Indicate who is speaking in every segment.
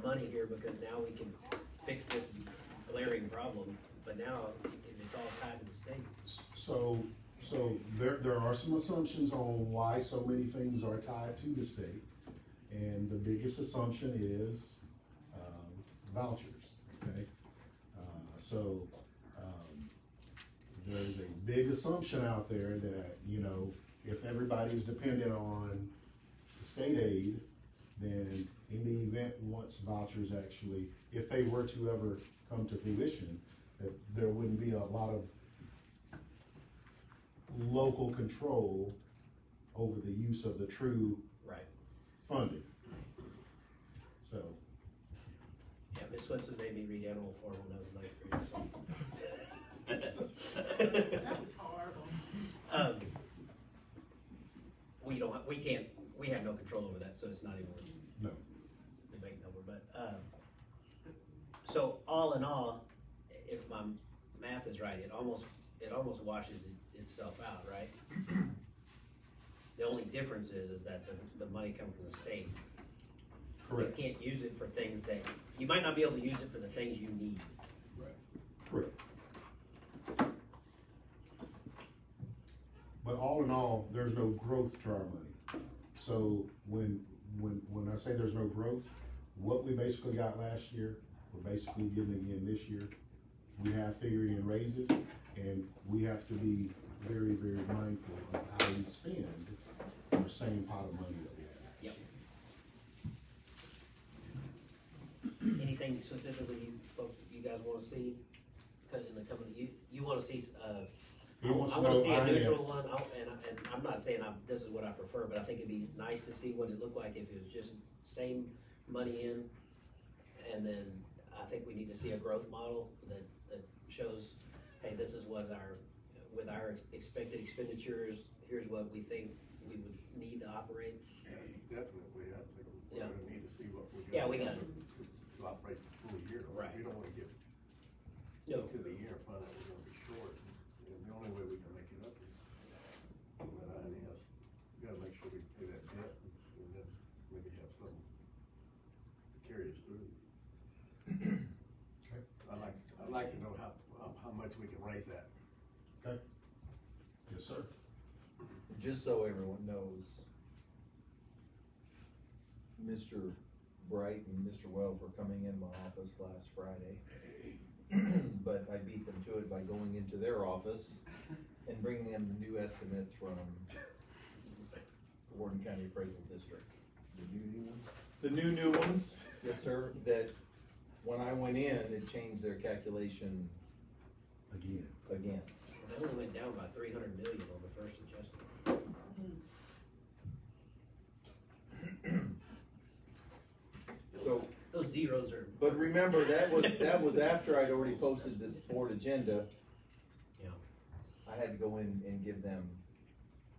Speaker 1: money here because now we can fix this glaring problem, but now if it's all tied to the state.
Speaker 2: So, so there, there are some assumptions on why so many things are tied to the state. And the biggest assumption is, um, vouchers, okay? Uh, so, um, there's a big assumption out there that, you know, if everybody's dependent on the state aid, then in the event once vouchers actually, if they were to ever come to fruition, that there wouldn't be a lot of local control over the use of the true
Speaker 1: Right.
Speaker 2: funding. So,
Speaker 1: Yeah, Miss Swenson made me read Animal Farm when I was in ninth grade, so.
Speaker 3: That was horrible.
Speaker 1: Um, We don't, have- we can't, we have no control over that, so it's not even worth
Speaker 2: no,
Speaker 1: debate number, but, um, so all in all, if my math is right, it almost, it almost washes it- itself out, right? The only difference is, is that the, the money come from the state.
Speaker 2: correct,
Speaker 1: You can't use it for things that, you might not be able to use it for the things you need.
Speaker 2: correct. But all in all, there's no growth to our money. So when, when, when I say there's no growth, what we basically got last year, we're basically getting again this year. We have figured in raises, and we have to be very, very mindful of how we spend the same pot of money that we have.
Speaker 1: Yep. Anything specifically you, folk- you guys wanna see, cut in the coming, you, you wanna see, uh,
Speaker 2: He
Speaker 1: I
Speaker 2: wants to
Speaker 1: wanna
Speaker 2: know
Speaker 1: see a neutral
Speaker 2: IS.
Speaker 1: one, I, and, and I'm not saying I'm, this is what I prefer, but I think it'd be nice to see what it looked like if it was just same money in. And then I think we need to see a growth model that, that shows, hey, this is what our, with our expected expenditures, here's what we think we would need to operate.
Speaker 4: Definitely, I think we're
Speaker 1: Yeah.
Speaker 4: gonna need to see what we're gonna.
Speaker 1: Yeah, we gotta-
Speaker 4: to- To operate the full year.
Speaker 1: Right. Oh.
Speaker 4: We don't wanna get
Speaker 1: No,
Speaker 4: to the year, and find out we're gonna be short, and the only way we can make it up is with INS. We gotta make sure we pay that debt, and then maybe have some to carry us through.
Speaker 2: Okay.
Speaker 4: I'd like, I'd like to know how, how- how much we can raise that.
Speaker 2: Okay. Yes, sir.
Speaker 5: Just so everyone knows, Mr. Bright and Mr. Wells were coming in my office last Friday. But I beat them to it by going into their office and bringing them the new estimates from Warden County Appraisal District.
Speaker 4: The union one?
Speaker 5: The new, new ones? Yes, sir, that when I went in, it changed their calculation
Speaker 2: Again,
Speaker 5: again.
Speaker 1: they only went down by three hundred million on the first adjustment.
Speaker 5: So
Speaker 1: Those zeros are.
Speaker 5: But remember, that was, that was after I'd already posted this board agenda.
Speaker 1: Yeah.
Speaker 5: I had to go in and give them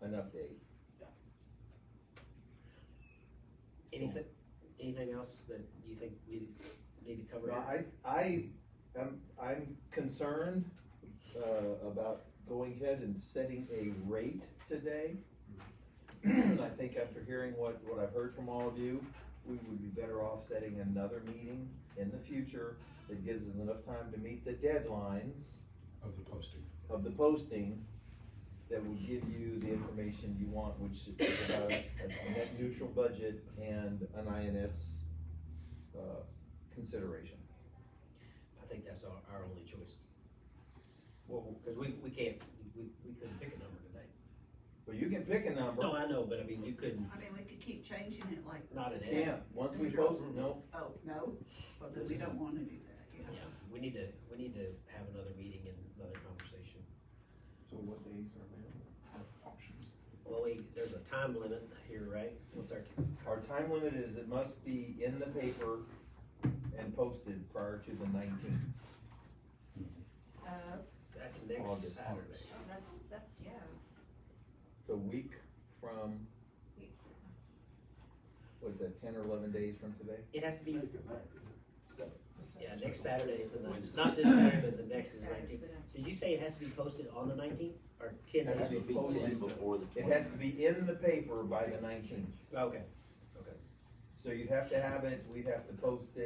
Speaker 5: an update.
Speaker 1: Anything, anything else that you think we need to cover?
Speaker 5: Now,
Speaker 1: here?
Speaker 5: I, I, am, I'm concerned, uh, about going ahead and setting a rate today. I think after hearing what, what I've heard from all of you, we would be better off setting another meeting in the future that gives us enough time to meet the deadlines.
Speaker 2: of the posting.
Speaker 5: of the posting that will give you the information you want, which is about a net neutral budget and an INS, uh, consideration.
Speaker 1: I think that's our, our only choice,
Speaker 5: Well,
Speaker 1: because we, we can't, we, we couldn't pick a number today.
Speaker 5: well, you can pick a
Speaker 1: No,
Speaker 5: number,
Speaker 1: I know, but I mean, you couldn't,
Speaker 3: I mean, we could keep changing it like,
Speaker 1: not an
Speaker 5: can't, once we post, no,
Speaker 3: oh, no, but that we don't wanna do
Speaker 1: Yeah,
Speaker 3: that,
Speaker 1: we need to, we need to have another meeting and another conversation.
Speaker 4: So what days are available, options?
Speaker 1: Well, we, there's a time limit here, right? What's our,
Speaker 5: our time limit is it must be in the paper and posted prior to the nineteenth.
Speaker 3: yeah. Uh,
Speaker 1: that's next
Speaker 5: August.
Speaker 1: Saturday.
Speaker 3: that's, that's, yeah.
Speaker 5: It's a week from, what's that, ten or eleven days from today?
Speaker 1: It has to be,
Speaker 5: So,
Speaker 1: yeah, next Saturday is the ninth, not this Saturday, but the next is nineteenth. Did you say it has to be posted on the nineteenth or ten?
Speaker 5: It has to be posted. It has to be in the paper by the nineteenth.
Speaker 1: Okay.
Speaker 5: So you'd have to have it, we'd have to post it.